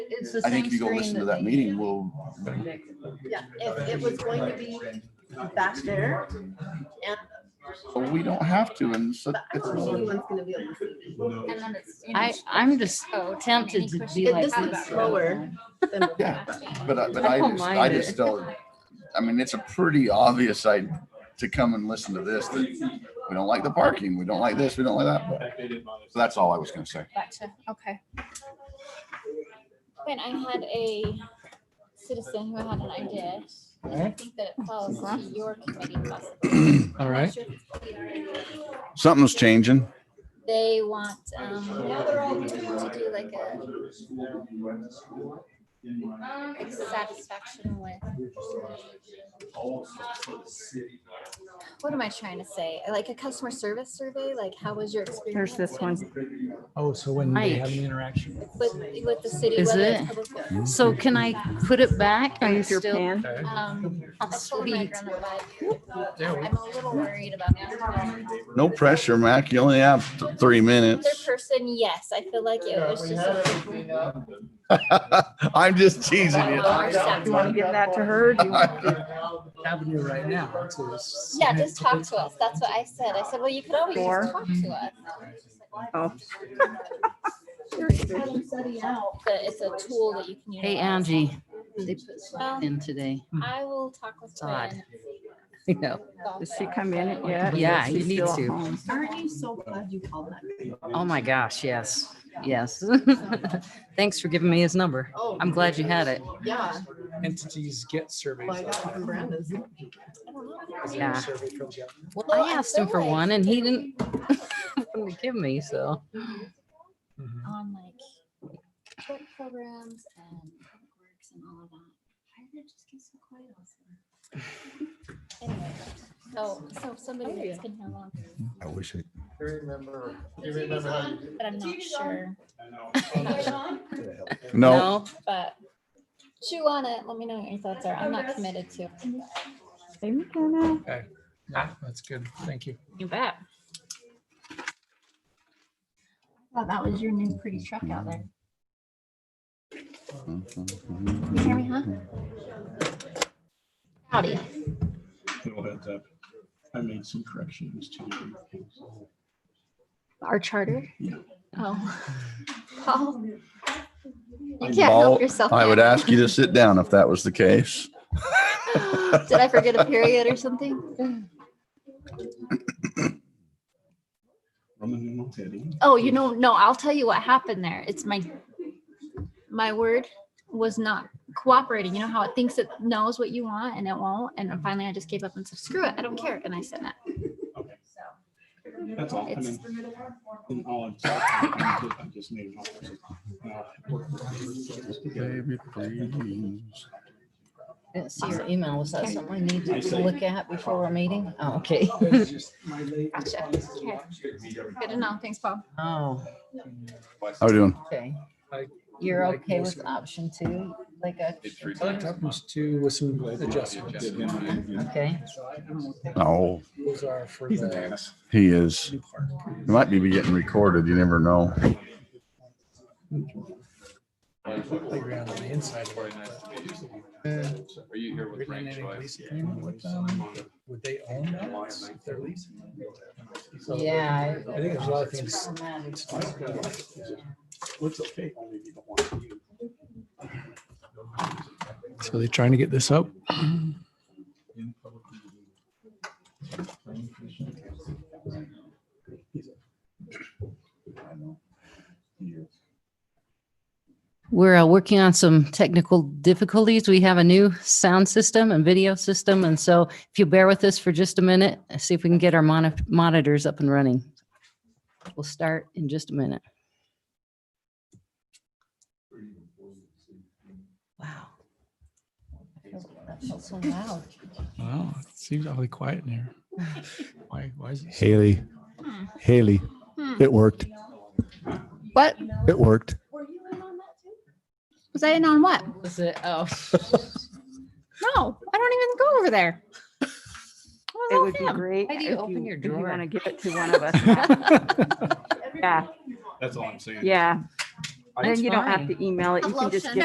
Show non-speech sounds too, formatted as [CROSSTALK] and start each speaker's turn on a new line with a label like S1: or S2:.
S1: it's the
S2: I
S1: same
S2: think if you go
S1: screen
S2: listen to
S1: that
S2: that
S1: they-
S2: meeting, we'll,
S1: Yeah, if it was going to be back there and,
S2: but we don't have to, and so
S1: but I
S2: it's,
S1: don't think anyone's gonna be able to see
S3: And then it's. in
S4: I,
S3: each-
S4: I'm just
S3: Oh,
S4: tempted
S3: any
S4: to
S3: question?
S4: be
S1: It-
S4: like.
S1: this
S4: this
S1: is
S4: all the
S1: lower.
S4: time.
S1: them.
S2: yeah, but I, but
S4: I
S2: I
S4: don't
S2: just, I
S4: mind
S2: just
S4: it.
S2: don't, I mean, it's a pretty obvious I, to come and listen to this, that we don't like the parking, we don't like this, we don't like that, but, so that's all I was gonna say.
S3: Gotcha, okay. When I had a citizen who had an idea, and I think that it falls to your committee possibly.
S5: All right.
S2: Something's changing.
S3: They want, um, to do like a like satisfaction with. What am I trying to say? Like a customer service survey, like how was your experience?
S4: There's this one.
S5: Oh, so when they have an
S4: Mike.
S5: interaction.
S3: With, with the city,
S4: Is
S3: whether
S4: it?
S3: it's public. or-
S4: So can I put it back? Are you still? [LAUGHS]
S1: pan.
S5: Okay.
S3: Um, I told my
S4: Sweet.
S3: grandma that.
S5: There we-
S3: I'm a little worried about that.
S2: No pressure, Mac, you only have th- three
S3: Other
S2: minutes. [LAUGHS]
S3: person, yes, I feel like it was just. a-
S2: I'm just teasing you.
S3: Our staff.
S1: You wanna give that to her? Do
S4: [LAUGHS]
S1: you want to-
S5: Avenue right now. to s-
S3: Yeah, just talk to us. That's what I said. I said, well, you could always just talk
S4: Mm-hmm.
S3: to us.
S1: Oh.
S3: But it's a tool that you can use.
S4: Hey, Angie, Mm-hmm. they put
S3: Well,
S4: in today.
S3: I will talk with her.
S4: Todd.
S3: and
S4: You know,
S3: golf
S1: Does she
S3: it.
S1: come in it yet?
S4: Yeah,
S1: She's
S4: you need
S1: still at
S4: to.
S1: home.
S6: Aren't you so glad you called that?
S4: oh my gosh, yes, yes. [LAUGHS] Thanks for giving me his number.
S6: Oh,
S4: I'm glad you had it.
S6: yeah.
S5: Entities get surveys.
S6: Well, I got it from Brenda's.
S5: Is there
S4: Yeah.
S5: a survey from Jeff?
S4: Well,
S3: Well, I
S4: I asked him
S3: feel
S4: for
S3: like-
S4: one and he didn't [LAUGHS] wouldn't give me, so.
S5: Mhm.
S3: On like work programs and public works and all of that. Why did it just get so quiet all of a sudden? Anyway, So, so somebody that's been here longer,
S7: I wish I
S8: You remember, you remember how you
S3: but I'm not sure,
S7: could have
S2: [LAUGHS]
S7: helped.
S2: No,
S3: but chew on it. Let me know what your thoughts are. I'm not committed to. it, but-
S1: Hey, McKenna.
S5: [LAUGHS] Yeah, That's good. Thank you.
S4: You bet.
S3: Wow, that was your new pretty truck out there. You hear me, huh? Howdy.
S9: Little heads up. I made some corrections to.
S3: Our charter?
S9: Yeah.
S3: Oh. Paul. You can't
S2: Paul,
S3: help yourself.
S2: I would
S3: now.
S2: ask you to sit down if that was the case.
S3: [LAUGHS] Did I forget a period or something?
S9: Roman numeral heading.
S3: Oh, you know, no, I'll tell you what happened there. It's my, my word was not cooperating. You know how it thinks it knows what you want and it won't. And then finally I just gave up and said, screw it, I don't care. And I said that.
S9: That's all. I
S3: It's-
S9: mean, in all of- I just needed all sorts of- Well,
S4: See your email. Was that
S3: Okay.
S4: something we need
S9: I
S4: to
S9: see.
S4: look at before our meeting? Oh, okay. [LAUGHS]
S3: Gotcha. Okay. Good to know. Thanks, Paul.
S4: Oh,
S2: How we doing?
S4: okay.
S5: Like-
S4: You're
S5: like
S4: okay
S5: most
S4: with
S5: of them.
S4: option two, like a,
S5: I like Options two with some adjustments.
S4: okay.
S2: Oh,
S5: Those are for
S9: He's an
S5: the
S9: ass.
S2: he is.
S5: new park.
S2: He might be getting recorded. You never know.
S5: Playground on the inside. of it.
S10: Are you here with
S5: Written in
S10: Frank
S5: any
S10: Choi?
S5: lease agreement with them? Would they own that if they're leasing? So,
S4: Yeah.
S5: I think there's a lot of things.
S4: Problematic.
S9: Looks okay. only if you don't want to.
S5: So they're trying to get this up?
S4: We're uh, working on some technical difficulties. We have a new sound system and video system. And so if you bear with us for just a minute, see if we can get our moni- monitors up and running. We'll start in just a minute. Wow. That felt so loud.
S5: Wow, it seems awfully quiet in here. Why, why is it? so-
S7: Haley,
S3: Hmm.
S7: Haley,
S3: Hmm.
S7: it worked.
S3: What?
S7: It worked.
S3: Was I in on what?
S4: Was it, oh.
S3: No, I don't even go over there. [LAUGHS]
S1: It would be great.
S4: Why do you
S1: if
S4: open your
S1: if you
S4: drawer?
S1: wanna give it to
S4: [LAUGHS]
S1: one of us. Yeah,
S9: That's all I'm saying.
S1: yeah. Then
S4: That's
S1: you don't have
S4: fine.
S1: to email it. You can just
S3: Lotion.
S1: give